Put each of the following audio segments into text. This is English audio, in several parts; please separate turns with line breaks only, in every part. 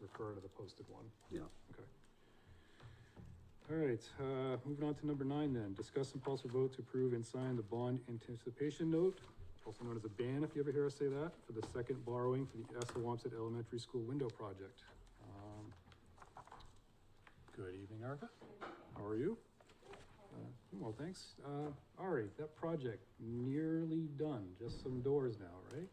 refer to the posted one.
Yeah.
Okay. All right, uh, moving on to number nine then, discuss and possible vote to approve and sign the bond anticipation note, also known as a ban, if you ever hear us say that, for the second borrowing for the Assawamsett Elementary School window project. Um, Good evening, Erica. How are you? Uh, Well, thanks. Uh, Ari, that project nearly done, just some doors now, right?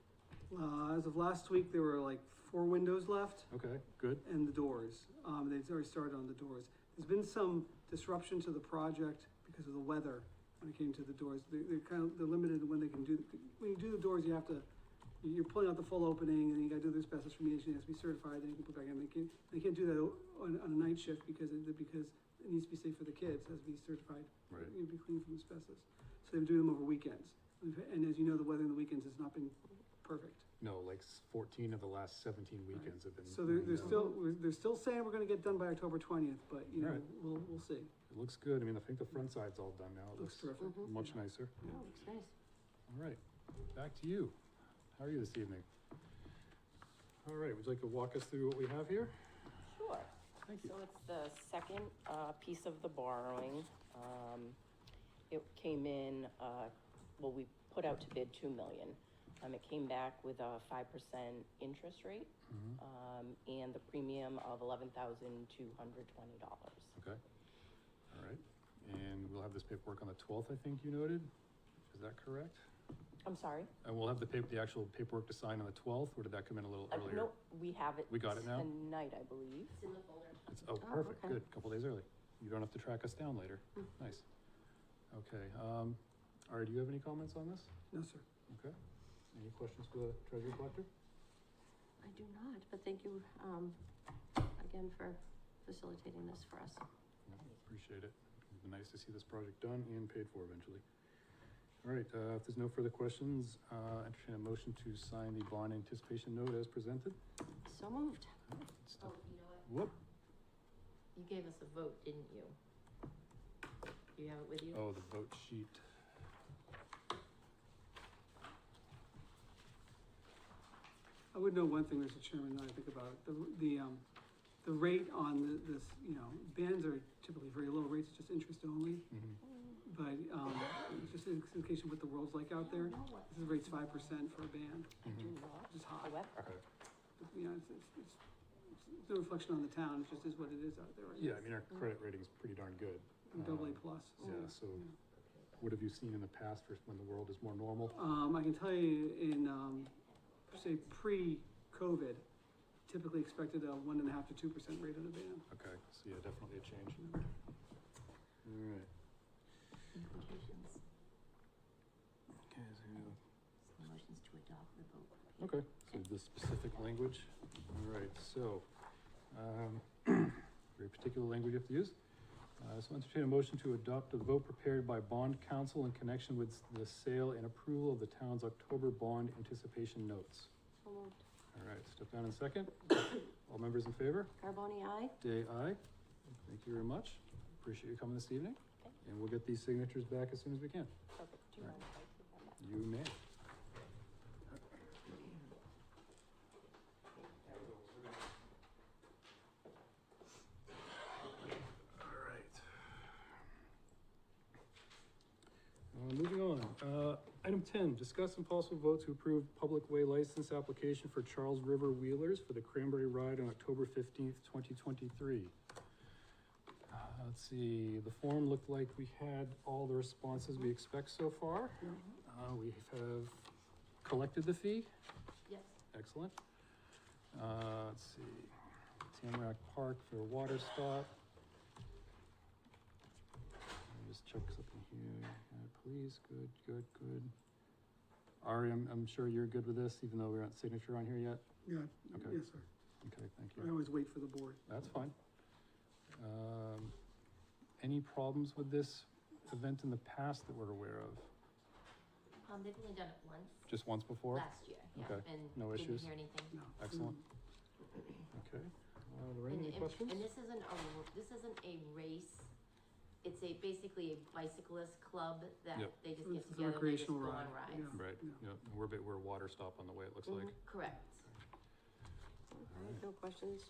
Uh, as of last week, there were like four windows left
Okay, good.
and the doors. Um, they've already started on the doors. There's been some disruption to the project because of the weather when it came to the doors. They, they're kind of, they're limited when they can do, when you do the doors, you have to, you're pulling out the full opening and you gotta do the asbestos remediation, it has to be certified, then you can put back in. They can't, they can't do that on, on a night shift because it, because it needs to be safe for the kids, it has to be certified.
Right.
You know, be clean from asbestos. So they're doing them over weekends. We've- And as you know, the weather in the weekends has not been perfect.
No, like s- fourteen of the last seventeen weekends have been.
So they're, they're
No.
still, we're- they're still saying we're gonna get done by October twentieth, but you know,
Alright.
we'll, we'll see.
It looks good. I mean, I think the front side's all done now. It
Looks
looks
terrific.
Mm-hmm.
Mhm.
much nicer.
Oh, looks nice.
All right, back to you. How are you this evening? All right, would you like to walk us through what we have here?
Sure.
Thank
So
you.
it's the second uh, piece of the borrowing. Um, It came in, uh, well, we put out to bid 2 million. Um, It came back with a 5% interest rate
Mhm.
um, and the premium of $11,220.
Okay. All right, and we'll have this paperwork on the twelfth, I think you noted. Is that correct?
I'm sorry?
And we'll have the paper, the actual paperwork to sign on the twelfth, or did that come in a little
Uh,
earlier?
Nope, we have it.
We got it now?
Tonight, I believe.
It's in the folder.
It's, oh, perfect,
okay.
good, a couple days early. You don't have to track us down later. Nice. Okay, um, all right, do you have any comments on this?
No, sir.
Okay. Any questions for the treasury collector?
I do not, but thank you, um, again for facilitating this for us.
Yeah, Appreciate it. It'd be nice to see this project done and paid for eventually. All right, uh, if there's no further questions, uh, entertain a motion to sign the bond anticipation note as presented.
So moved.
It's
Oh,
the-
you know what?
Whoop,
You gave us a vote, didn't you? Do you have it with you?
oh, the vote sheet.
I would know one thing, Mr. Chairman, that I think about, it. the, the, um, the rate on the, this, you know, bands are typically very low rates, it's just interest only.
Mhm.
But, um, just in in case of what the world's like out there, this is rates five percent for a band,
I do not.
which is high.
However,
Mm-hmm. Okay.
You know, it's, it's, it's, it's no reflection on the town, it just is what it is out there right
Yeah, I
now.
mean, our credit rating's pretty darn good.
I'm Double A
Um,
plus.
Yeah, so
Mm-hmm.
what have you seen in the past for when the world is more normal?
Um, I can tell you in, um, say pre-COVID, typically expected a one and a half to two percent rate on a band.
Okay, so yeah, definitely a change.
you
All
know.
right.
Implications,
Okay, so you-
motions to adopt the vote.
Okay, so the specific language, all right, so, um, very particular language you have to use. Uh, so entertain a motion to adopt a vote prepared by bond council in connection with the sale and approval of the town's October bond anticipation notes.
So moved.
All right, step down in second. All members in favor?
Carboni, aye?
Day, aye. Thank you very much. Appreciate you coming this evening.
Thank
And we'll get these signatures back as soon as we can.
perfect. Do you mind if I keep that back?
You may. All right. Uh, Moving on, uh, item ten, discuss and possible vote to approve public way license application for Charles River Wheelers for the Cranberry Ride on October fifteenth, twenty twenty-three. Uh, Let's see, the form looked like we had all the responses we expect so far. Uh, we have collected the fee,
Yes.
excellent. Uh, let's see, Tamarack Park for a water stop. Let me just check something here, Uh, please, good, good, good. Ari, I'm, I'm sure you're good with this, even though we aren't signature on here yet?
Yeah,
Okay.
yes, sir.
Okay, thank
I
you.
always wait for the board.
That's fine. Um, any problems with this event in the past that we're aware of?
Um, they've only done it once,
Just once before?
last year, yeah,
Okay.
and
No
didn't
issues?
hear anything.
No.
Excellent. Okay. Uh, Lorraine,
And-
any
and-
questions?
And this isn't a, this isn't a race. It's a, basically a bicyclist club
Yep.
that they just
This
get
is a
together, they just
recreational
go on
ride,
rides. Mm-hmm,
Right,
Yeah.
yeah, we're a bit, we're a water stop on the way, it looks like.
Correct.
Aye, no questions?